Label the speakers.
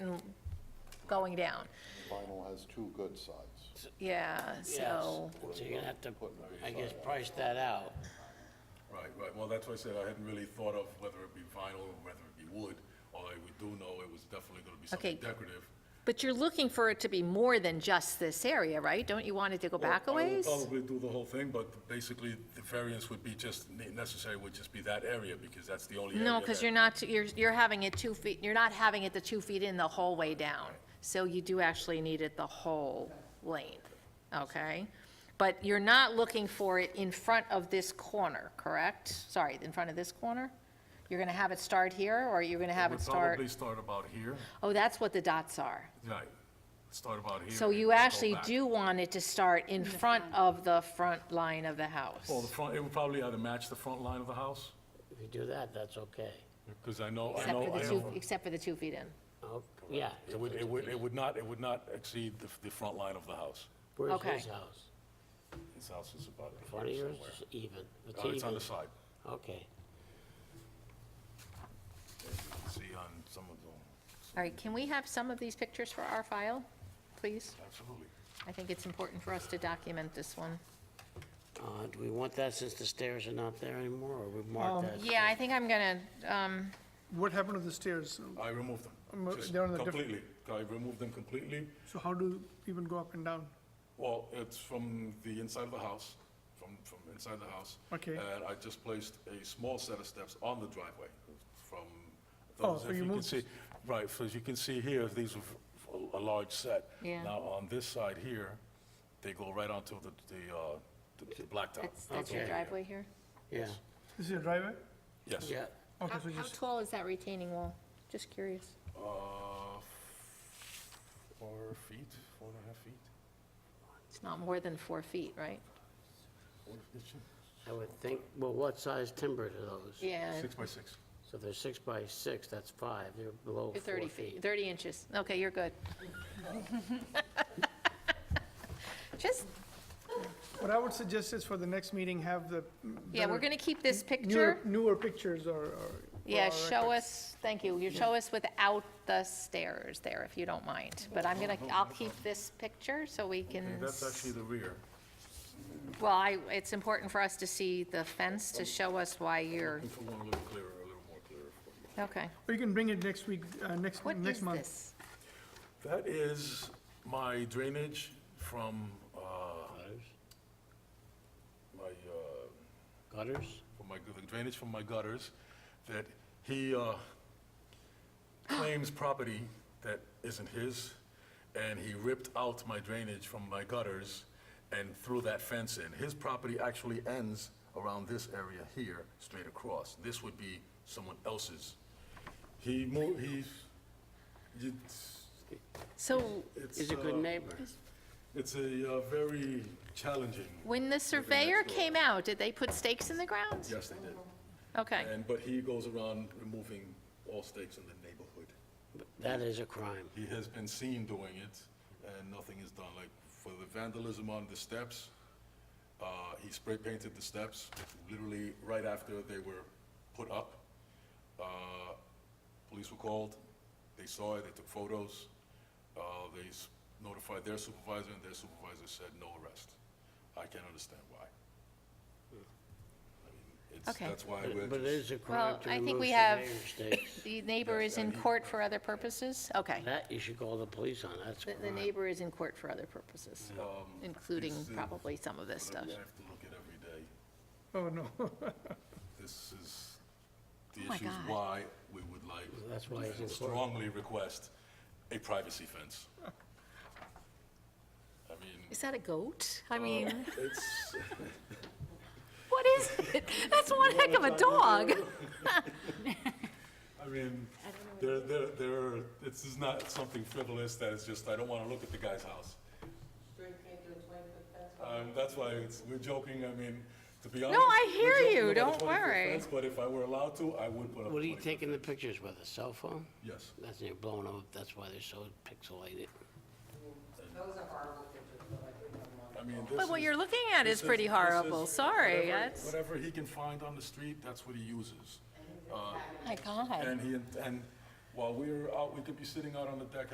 Speaker 1: going down.
Speaker 2: Vinyl has two good sides.
Speaker 1: Yeah,
Speaker 3: Yes.
Speaker 1: so,
Speaker 3: So you're gonna have to, I guess, price that out.
Speaker 4: Right, right, well, that's why I said I hadn't really thought of whether it be vinyl or whether it be wood, although we do know it was definitely gonna be something
Speaker 1: Okay.
Speaker 4: decorative.
Speaker 1: but you're looking for it to be more than just this area, right? Don't you want it to go back a
Speaker 4: Well, I will
Speaker 1: ways?
Speaker 4: Probably do the whole thing, but basically, the variance would be just, ne- necessary would just be that area, because that's the only area.
Speaker 1: No, because
Speaker 4: that-
Speaker 1: you're not, you're, you're having it two feet, you're not having it the two feet in the whole way down. So you do actually need it the whole length, okay? But you're not looking for it in front of this corner, correct? Sorry, in front of this corner? You're gonna have it start here, or you're gonna have it
Speaker 4: would
Speaker 1: start?
Speaker 4: Probably start about here,
Speaker 1: Oh, that's what the dots are.
Speaker 4: right, start about here.
Speaker 1: So
Speaker 4: and
Speaker 1: you
Speaker 4: go
Speaker 1: actually
Speaker 4: back.
Speaker 1: do want it to start in front of the front line of the
Speaker 4: Well, the
Speaker 1: house.
Speaker 4: front, it would probably either match the front line of the house,
Speaker 3: If you do that, that's okay.
Speaker 4: because I know, I
Speaker 1: Except
Speaker 4: know,
Speaker 1: for
Speaker 4: I
Speaker 1: the two,
Speaker 4: know.
Speaker 1: except for the two feet in.
Speaker 3: Oh, Yeah.
Speaker 4: It would, it would, it would not, it would not exceed the, the front line of the house.
Speaker 3: Where's
Speaker 1: Okay.
Speaker 3: his house?
Speaker 4: His house is about here
Speaker 3: Front of yours
Speaker 4: somewhere.
Speaker 3: is even. It's
Speaker 4: Uh, It's on
Speaker 3: even.
Speaker 4: the side,
Speaker 3: Okay.
Speaker 4: as you can see on some of them,
Speaker 1: All right, can we have some of these pictures for our file, please?
Speaker 4: absolutely.
Speaker 1: I think it's important for us to document this one.
Speaker 3: Uh, do we want that since the stairs are not there anymore, or we mark that?
Speaker 1: Yeah, I think I'm gonna, um,
Speaker 5: What happened to the stairs?
Speaker 4: I removed them.
Speaker 5: Um,
Speaker 4: Just
Speaker 5: they're on the diff-
Speaker 4: Completely, I removed them completely.
Speaker 5: So how do people go up and down?
Speaker 4: Well, it's from the inside of the house, from, from inside the house.
Speaker 5: Okay.
Speaker 4: And I just placed a small set of steps on the driveway from
Speaker 5: Oh,
Speaker 4: those,
Speaker 5: so
Speaker 4: if
Speaker 5: you
Speaker 4: you can
Speaker 5: moved-
Speaker 4: see. Right, so as you can see here, these are f- a a large set.
Speaker 1: Yeah.
Speaker 4: Now, on this side here, they go right onto the, the, uh, the- the blacktop.
Speaker 1: that's, that's your
Speaker 3: Okay.
Speaker 1: driveway here.
Speaker 3: Yeah,
Speaker 5: This is a driveway?
Speaker 4: Yes.
Speaker 3: yeah.
Speaker 5: Okay,
Speaker 1: How,
Speaker 5: so
Speaker 1: Uh, how
Speaker 5: just,
Speaker 1: tall is that retaining wall? Just curious.
Speaker 4: Uh, four feet, four and a half feet.
Speaker 1: It's not more than four feet, right?
Speaker 4: Four- it's
Speaker 3: I would think, well, what size timber are those?
Speaker 1: Yeah,
Speaker 4: Six by six.
Speaker 3: So they're six by six, that's five, they're below
Speaker 1: you're
Speaker 3: four
Speaker 1: 30 feet, 30 inches. Okay, you're good. Just,
Speaker 5: what I would suggest is for the next meeting, have the.
Speaker 1: yeah, we're
Speaker 5: better-
Speaker 1: gonna keep this
Speaker 5: newer-
Speaker 1: picture.
Speaker 5: Newer pictures or. or-
Speaker 1: Yeah,
Speaker 5: or-
Speaker 1: show us, thank you, you show us without the stairs there, if you don't mind. But I'm gonna, I'll keep this picture so we can.
Speaker 4: And that's actually the rear.
Speaker 1: Well, I, it's important for us to see the fence to show us why you're,
Speaker 4: If you want a little clearer, a little more clearer for you.
Speaker 1: okay.
Speaker 5: Or you can bring it next week, uh, next,
Speaker 1: What is
Speaker 5: next month.
Speaker 1: this?
Speaker 4: That is my drainage from, uh,
Speaker 3: Gutters?
Speaker 4: my, uh,
Speaker 3: Gutters?
Speaker 4: from my, the drainage from my gutters that he, uh, claims property that isn't his, and he ripped out my drainage from my gutters and threw that fence in. His property actually ends around this area here, straight across. This would be someone else's. He moved, he's, it's,
Speaker 1: So
Speaker 4: it's.
Speaker 3: Is a good
Speaker 4: uh,
Speaker 3: neighbor.
Speaker 4: It's a uh, very challenging,
Speaker 1: when the surveyor came out, did they put stakes in the ground?
Speaker 4: yes, they did.
Speaker 1: Okay,
Speaker 4: And, but he goes around removing all stakes in the neighborhood.
Speaker 3: That is a crime.
Speaker 4: He has been seen doing it, and nothing is done. Like, for the vandalism on the steps, uh, he spray painted the steps literally right after they were put up. Uh, Police were called, they saw it, they took photos, uh, they s- notified their supervisor, and their supervisor said no arrest. I can't understand why. I mean, it's-
Speaker 1: Okay.
Speaker 4: That's why
Speaker 3: Hmm. But
Speaker 4: we're
Speaker 3: but it is
Speaker 4: just,
Speaker 3: a crime to
Speaker 1: I think
Speaker 3: remove
Speaker 1: we have-
Speaker 3: surveyor stakes.
Speaker 1: the neighbor is in court for other purposes? Okay,
Speaker 3: That you should call the police on, that's
Speaker 1: The-
Speaker 3: crime.
Speaker 1: the neighbor is in court for other purposes, including
Speaker 4: he's, uh,
Speaker 1: probably some of this
Speaker 4: I
Speaker 1: stuff.
Speaker 4: have to look at every day.
Speaker 5: Oh, no.
Speaker 4: This is, the
Speaker 1: Oh my
Speaker 4: issue is
Speaker 1: God.
Speaker 4: why we would like,
Speaker 3: That's why it's
Speaker 4: to
Speaker 3: important.
Speaker 4: strongly request a privacy fence. I mean,
Speaker 1: Is that a goat? I mean,
Speaker 4: it's,
Speaker 1: what is it? That's one heck of a dog.
Speaker 4: I mean, there, there, there, are- this is not something frivolous that is just, I don't want to look at the guy's house. Um, that's why it's, we're joking, I mean, to be honest.
Speaker 1: I
Speaker 4: we're
Speaker 1: hear
Speaker 4: joking
Speaker 1: you,
Speaker 4: about a
Speaker 1: don't
Speaker 4: 20 -foot
Speaker 1: worry.
Speaker 4: fence, But if I were allowed to, I would put up a
Speaker 3: What are you
Speaker 4: 20 -foot
Speaker 3: taking the pictures with, a cell phone?
Speaker 4: fence. Yes.
Speaker 3: That's, they're blowing them up, that's why they're so pixelated.
Speaker 4: I mean, this
Speaker 1: But what
Speaker 4: is-
Speaker 1: you're looking at
Speaker 4: this
Speaker 1: is pretty
Speaker 4: this is-
Speaker 1: horrible, sorry,
Speaker 4: whatever-
Speaker 1: that's,
Speaker 4: Whatever he can find on the street, that's what he uses.
Speaker 1: my God.
Speaker 4: And he, and while we're out, we could be sitting out on the deck